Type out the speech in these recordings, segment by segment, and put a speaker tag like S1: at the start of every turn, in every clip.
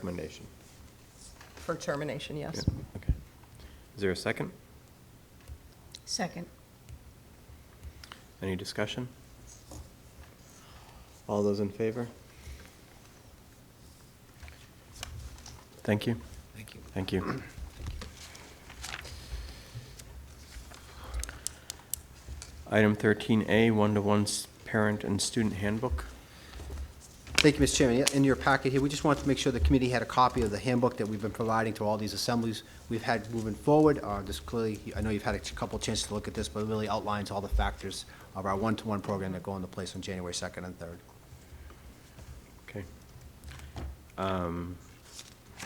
S1: Recommendation.
S2: For termination, yes.
S1: Yeah, Okay. Is there a second?
S3: Second.
S1: Any discussion? All those in favor? Thank you.
S4: Thank you.
S1: Thank you. Item 13A, one-to-one s- parent and student handbook.
S4: Thank you, Mr. Chairman. In your packet here, we just wanted to make sure the committee had a copy of the handbook that we've been providing to all these assemblies we've had moving forward. Uh, This clearly, I know you've had a couple chances to look at this, but it really outlines all the factors of our one-to-one program that go into place on January 2nd and 3rd.
S1: Okay. Um,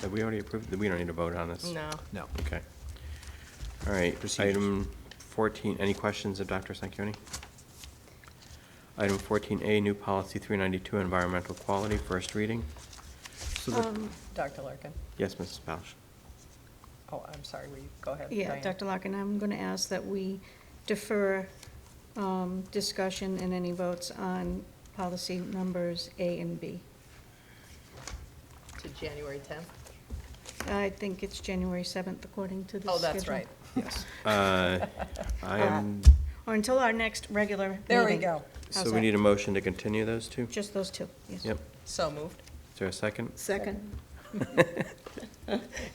S1: Have we already approved, we don't need to vote on this?
S2: No.
S4: No.
S1: Okay. All right,
S4: Procedures.
S1: item 14, any questions of Dr. Sanquioni? Item 14A, new policy 392, environmental quality, first reading.
S4: So the-
S3: Um,
S2: Dr. Larkin?
S1: Yes, Mrs. Balch?
S2: Oh, I'm sorry, will you, go ahead.
S3: Yeah,
S2: Diane.
S3: Dr. Larkin, I'm going to ask that we defer um, discussion and any votes on policy numbers A and B.
S2: To January 10th?
S3: I think it's January 7th according to the schedule.
S2: Oh, that's right.
S4: Yes.
S1: Uh, I am,
S3: Or until our next regular meeting.
S2: There we go.
S1: so
S3: How's
S1: we
S3: that?
S1: need a motion to continue those two?
S3: Just those two, yes.
S1: Yep.
S2: So moved.
S1: Is there a second?
S3: Second.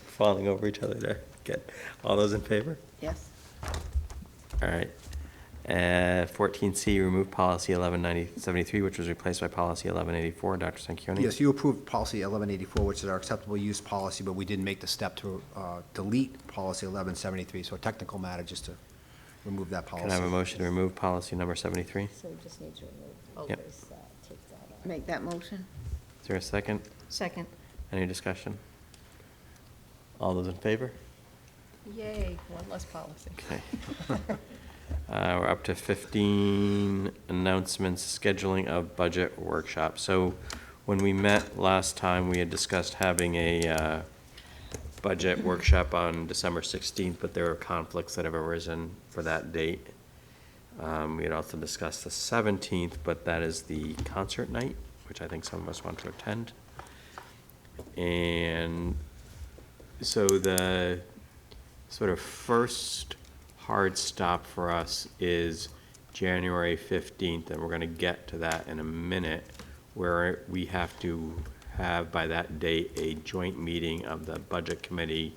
S1: Falling over each other there. Good. All those in favor?
S3: Yes.
S1: All right. Uh, 14C, remove policy 1173, which was replaced by policy 1184. Dr. Sanquioni?
S4: Yes, you approved policy 1184, which is our acceptable use policy, but we didn't make the step to uh, delete policy 1173, so a technical matter just to remove that policy.
S1: Can I have a motion to remove policy number 73? Is
S5: So we just need to
S2: Oh,
S5: remove,
S1: Yep.
S5: those, uh, take that out.
S6: Make that motion?
S1: there a second?
S3: Second.
S1: Any discussion? All those in favor?
S2: Yay, one less policy.
S1: Okay. Uh, We're up to 15 announcements, scheduling of budget workshop. So when we met last time, we had discussed having a uh, budget workshop on December 16th, but there are conflicts that have arisen for that date. Um, We had also discussed the 17th, but that is the concert night, which I think some of us want to attend. And so the sort of first hard stop for us is January 15th, and we're going to get to that in a minute, where we have to have by that date a joint meeting of the Budget Committee,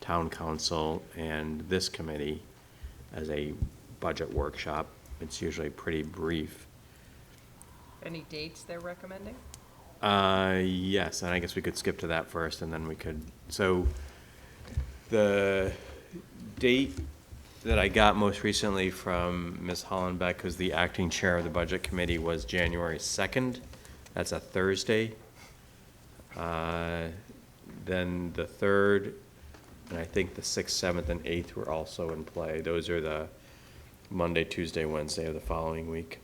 S1: Town Council, and this committee as a budget workshop. It's usually pretty brief.
S2: Any dates they're recommending?
S1: Uh, yes, and I guess we could skip to that first, and then we could, so the date that I got most recently from Ms. Hollenbeck, who's the acting chair of the Budget Committee, was January second. That's a Thursday. Uh, Then the third, and I think the sixth, seventh, and eighth were also in play. Those are the Monday, Tuesday, Wednesday of the following week.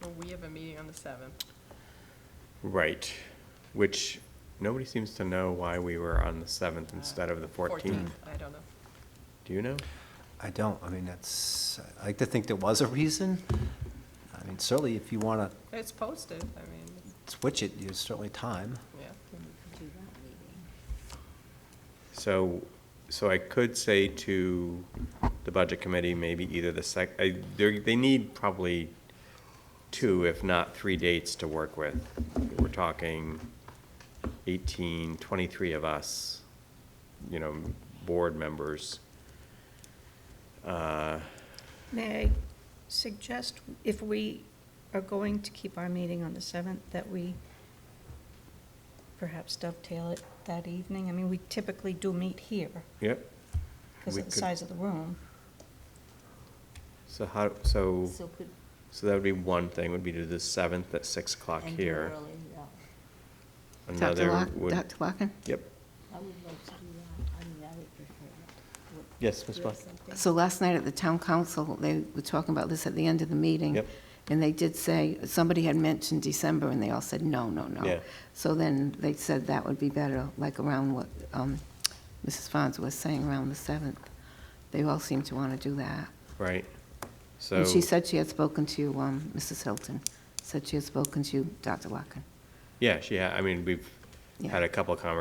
S2: Well, we have a meeting on the 7th.
S1: Right, which nobody seems to know why we were on the 7th instead of the 14th.
S2: I don't know.
S1: Do you know?
S4: I don't, I mean, that's, I like to think there was a reason. I mean, certainly if you want
S2: It's posted, I mean,
S4: to switch it, there's certainly time.
S2: yeah.
S5: Then we can do that meeting.
S1: So, so I could say to the budget committee, maybe either the sec, I- they're- they need probably two, if not three dates to work with. We're talking 18, 23 of us, you know, board members. Uh,
S3: May I suggest, if we are going to keep our meeting on the 7th, that we perhaps dovetail it that evening? I mean, we typically do meet here
S1: Yep,
S3: because
S1: We
S3: of the
S1: could-
S3: size of the room.
S1: so how, so,
S5: So could,
S1: so that would be one thing, would be to the 7th at 6 o'clock
S5: and do
S1: here.
S5: early, yeah.
S6: Dr.
S1: Another
S6: Lock,
S1: would.
S6: Dr. Larkin?
S1: Yep.
S5: I would love to do that, I mean, I would prefer that. Would-
S1: Yes, Ms.
S5: do you have
S1: Black.
S5: something?
S6: So last night at the town council, they were talking about this at the end of the meeting.
S1: Yep.
S6: And they did say, somebody had mentioned December, and they all said, no, no, no.
S1: Yeah.
S6: So then they said that would be better, like around what um, Mrs. Fonz was saying, around the 7th. They all seem to want to do that.
S1: Right. So,
S6: And she said she had spoken to um, Mrs. Hilton, said she had spoken to you, Dr. Larkin.
S1: yeah, she, ha- I mean, we've,
S6: Yeah.
S1: had a couple of conversations